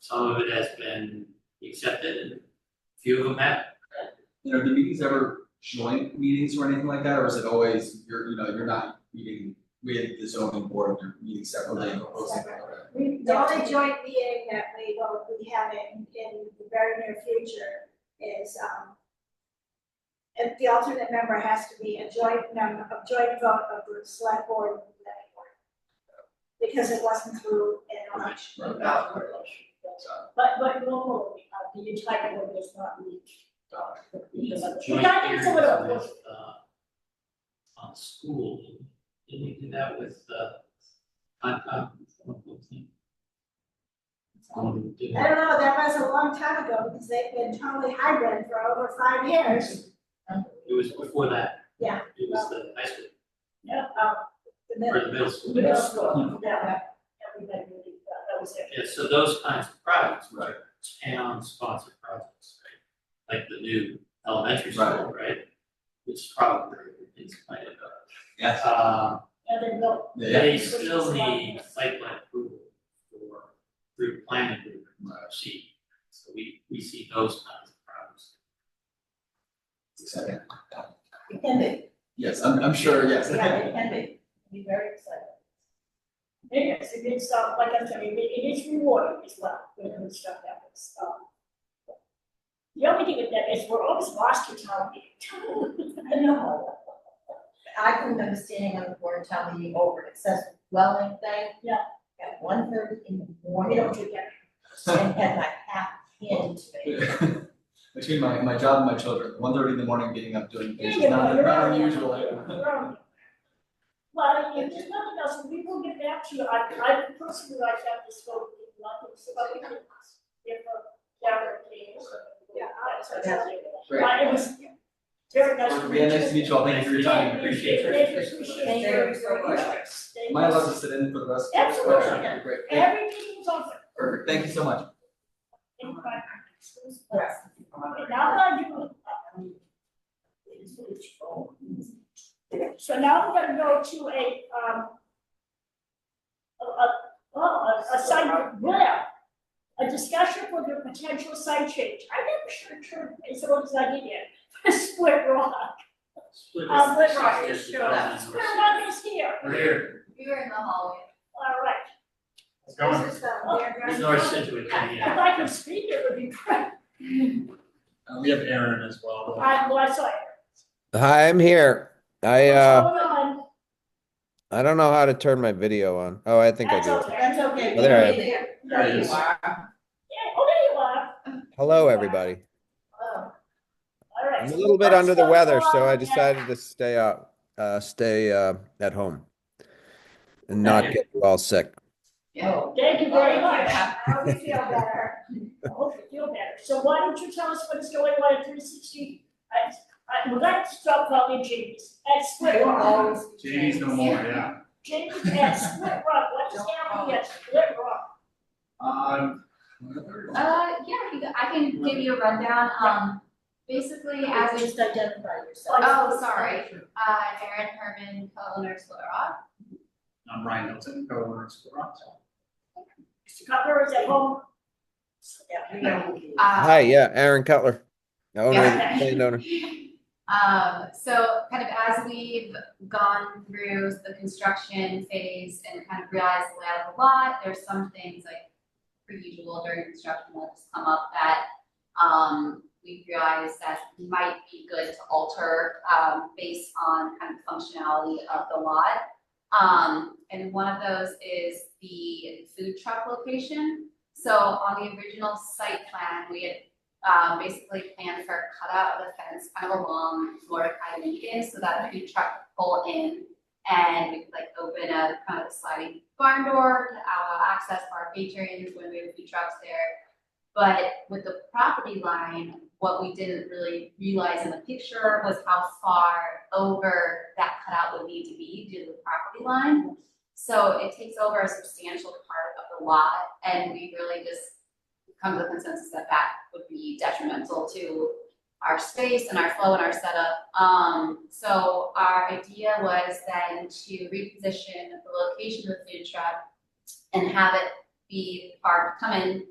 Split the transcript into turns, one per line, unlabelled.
Some of it has been accepted, and a few of them have.
You know, do meetings ever joint meetings or anything like that, or is it always, you're, you know, you're not meeting with the zoning board, you're meeting separately and proposing? okay.
We, the only joint meeting that we will be having in the very near future is, um, if the alternate member has to be a joint member, a joint vote of the select board and the planning board. Because it wasn't through an election.
Right.
But, but normally, uh, the entire board does not meet. Because of-
Joint
Regarding
hearings
some of the-
with, uh, on school, didn't we do that with, uh, on, on, on, on,
I don't know, that was a long time ago, because they've been totally hybrid for over five years.
It was before that.
Yeah.
It was the high school,
Yeah,
Um, and then-
or the middle school.
middle school, yeah, everybody really, uh, that was it.
Yeah, so those kinds of projects,
Right.
town-sponsored projects, right? Like the new elementary school, right? Which probably is kind of,
Yes,
uh,
And then go.
yeah,
they still need site plan approval for, through planning, through RFC. uh, So we, we see those kinds of problems.
exciting.
It can be,
Yes, I'm, I'm sure, yes.
yeah, it can be, be very exciting.
Yes, it is, uh, like I'm telling you, it is rewarding as well, when we stuff happens, um. The only thing with that is we're always lost to town meeting. I know.
I couldn't understand on the board of town meeting over an accessory dwelling thing.
Yeah.
At one thirty in the
We
morning,
don't do that.
and had my hat handed to me.
Between my, my job and my children, one thirty in the morning getting up doing things, is
Yeah,
not,
you're
not
right.
unusual.
You're right. Well, if there's nothing else, we will get back to you, I, I personally like to have this vote, in London, so I can give a gather case.
Yeah,
That's what
yeah.
I'm saying.
Great.
But it was very nice to meet you.
Yeah, nice to meet you all, thank you for your time,
Yeah,
appreciate
appreciate
your
it.
interest.
Appreciate
Thank
your-
you so
your
much.
interest. Thank
Am I
you.
allowed to sit in for the rest?
Absolutely.
Okay, Great, thank,
Everything is open.
perfect. thank you so much.
in five minutes. It was
Yes.
fast. Okay, Now that I do. So now we're gonna go to a, um. A, a, oh, a, a site, yeah, a discussion for the potential site change. I never should turn, it's always I did it, split rock.
Split
Um,
this-
split rock is
this-
sure.
this-
Split rock is here,
We're here,
You were in the hallway.
all right.
it's going,
This is the
Oh,
paragraph.
it's North Situate, coming in.
If I could speak, it would be great.
Uh, We have Aaron as well. though.
I, well, I saw it.
Hi, I'm here. I uh
Hold on,
I don't know how to turn my video on. Oh, I think I
that's
do.
okay.
That's okay.
Well, there I am.
There it is.
are.
Yeah, oh, there you are.
Hello, everybody.
Oh,
All right.
I'm a
so
little bit
let's
under the
go
weather, so
on
I
and-
decided to stay out, uh, stay uh, at home and not
Okay.
get all sick.
yeah.
Thank you very much. I
I hope you feel better.
hope you feel better. So why don't you tell us what is going on at three sixty? I, I, well, that's stop calling James. At Split
You'll
Rock.
always be
Jamie's no
changed.
more, yeah.
James at Split Rock. What is happening at Split Rock?
Um,
Uh, yeah, you, I can give you a rundown, um, basically as a,
Just identify yourself.
oh, sorry, uh, Erin Herman, co-owner of Split Rock.
I'm Ryan Hilton, co-owner of Split Rock.
Mr. Cutler is at home.
You know,
Uh,
Hi, yeah, Aaron Cutler, owner, of the
Yeah.
land owner.
Um, so kind of as we've gone through the construction phase and kind of realized the layout of the lot, there's some things like per usual during construction that just come up that um, we realized that might be good to alter um, based on kind of functionality of the lot. Um, and one of those is the food truck location. So on the original site plan, we had um, basically planned for a cutout of the fence kind of along Mordecai Lincoln so that the food truck could pull in and we could like open a kind of sliding barn door to allow access for our patrons when we have food trucks there. But with the property line, what we didn't really realize in the picture was how far over that cutout would need to be due to the property line. So it takes over a substantial part of the lot and we really just come to the consensus that that would be detrimental to our space and our flow and our setup. Um, so our idea was then to reposition the location of the food truck and have it be parked, come in